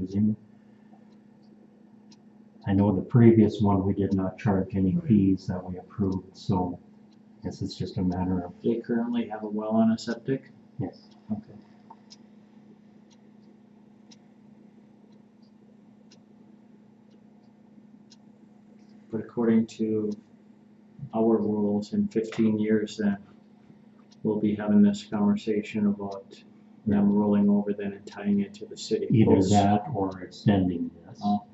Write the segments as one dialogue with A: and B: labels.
A: using. I know the previous one, we did not charge any fees that we approved, so I guess it's just a matter of,
B: They currently have a well and a septic?
A: yes.
B: Okay. But according to our rules, in fifteen years then, we'll be having this conversation about them rolling over then and tying it to the city.
A: Either
B: Oops.
A: that or extending this.
B: Oh.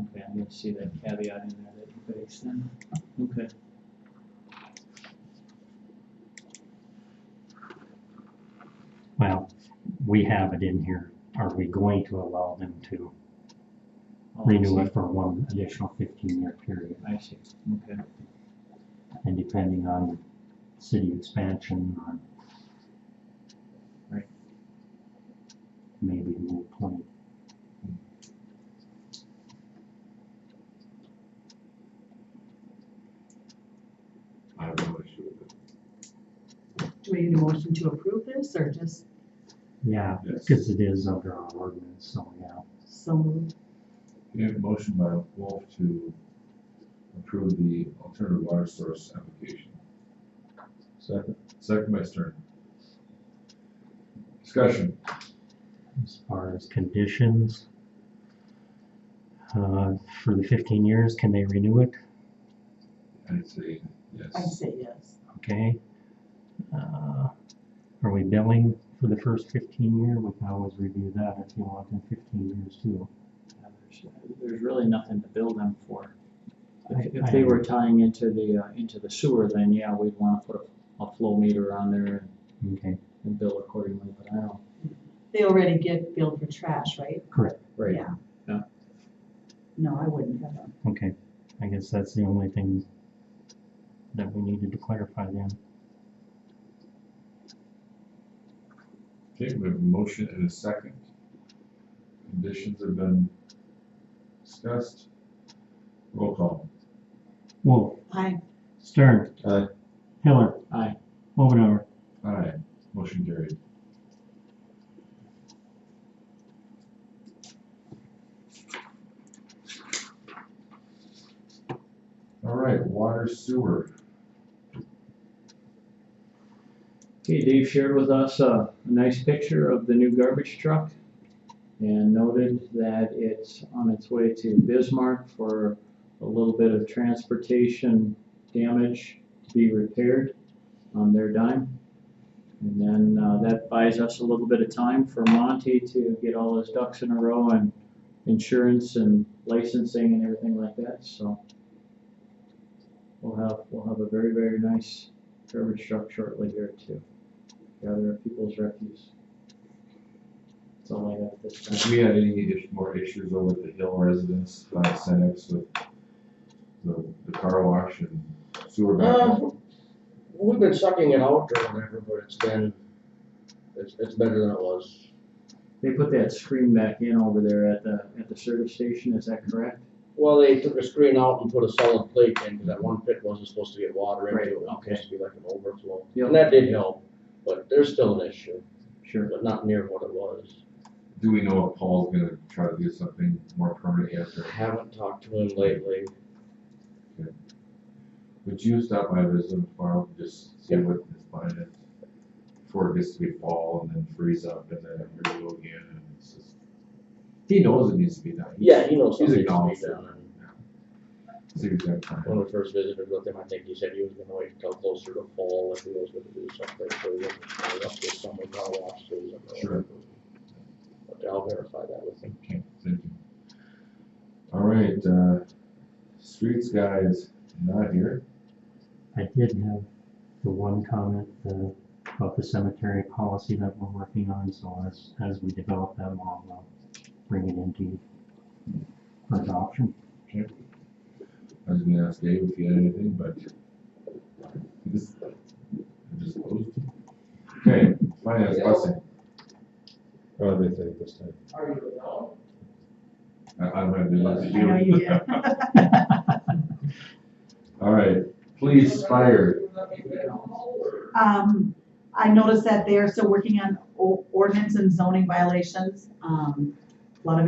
B: Okay, I'm gonna see that caveat in there that you fixed then, okay.
A: Well, we have it in here. Are we going to allow them to
B: I'll
A: renew
B: see.
A: it for one additional fifteen-year period?
B: I see, okay,
A: And depending on city expansion or
B: Right.
A: maybe move twenty.
C: I have no issue with it.
D: Do we need a motion to approve this or just
A: Yeah,
C: Yes.
A: because it is under our ordinance, so yeah.
D: so moved?
C: We have a motion by Wolf to approve the alternative water source application. Second. Second by Stern. Discussion.
A: As far as conditions, uh, for the fifteen years, can they renew it?
C: I'd say
D: I
C: yes.
D: say yes.
A: Okay. Uh, Are we billing for the first fifteen year? We can always review that if you want in fifteen years too.
B: Yeah, there's, there's really nothing to bill them for. If,
A: I-
B: if they were tying into the, uh, into the sewer, then yeah, we'd wanna put a, a flow meter on there and,
A: Okay,
B: and bill accordingly, but I don't.
D: They already get billed for trash, right?
A: correct.
B: Right.
D: Yeah.
B: Yeah.
D: No, I wouldn't have them.
A: Okay, I guess that's the only thing that we needed to clarify then.
C: Okay, we have a motion and a second. Conditions have been discussed. Roll call.
A: Wolf,
D: I,
A: Stern.
C: Aye.
A: Hiller.
B: Aye.
A: Ovindauer.
C: Aye, motion carried. All right, water sewer.
B: Okay, Dave shared with us a, a nice picture of the new garbage truck and noted that it's on its way to Bismarck for a little bit of transportation damage to be repaired on their dime. And then, uh, that buys us a little bit of time for Monty to get all his ducks in a row and insurance and licensing and everything like that, so. We'll have, we'll have a very, very nice garbage truck shortly here too. Gather people's refuse. That's all I got at this time.
C: Have we had any ish- more issues over at the Hill residence, uh, Senex with the, the car wash and sewer backup?
E: Um, we've been sucking it out or whatever, but it's been, it's, it's better than it was.
B: They put that screen back in over there at the, at the service station, is that correct?
E: Well, they took a screen out and put a solid plate in, because that one pit wasn't supposed to get water into it, it
B: Right,
E: was
B: okay.
E: supposed to be like an overflow.
B: Yep.
E: And that did help, but there's still an issue,
B: Sure.
E: but not near what it was.
C: Do we know if Paul's gonna try to get something more permanent yet, or
E: Haven't talked to him lately.
C: would you stop by visit him tomorrow, and just see what his plan is? Before it gets to be fall and then freeze up and then renew again, and it's just, he knows it needs to be done.
E: Yeah, he knows
C: He's
E: something needs to
C: acknowledged
E: be
C: it.
E: done. and
C: See if he's got time.
E: When we first visited with him, I think he said he was gonna wait until closer to fall if he was gonna do something, so he wasn't gonna rush this summer, car wash, so he's not.
C: Sure.
E: But I'll verify that with him.
C: Okay, thank you. All right, uh, streets guy is not here.
A: I did have the one comment, uh, about the cemetery policy that we're working on, so as, as we develop that, I'll, uh, bring it into for adoption.
C: I was gonna ask Dave if he had anything, but this, I just closed. Okay, finance blessing.
F: Oh, they think this time.
E: Are you at all?
C: I, I don't have the last
D: I know you did.
C: All right, police, fire.
D: Um, I noticed that they're still working on o- ordinance and zoning violations. Um,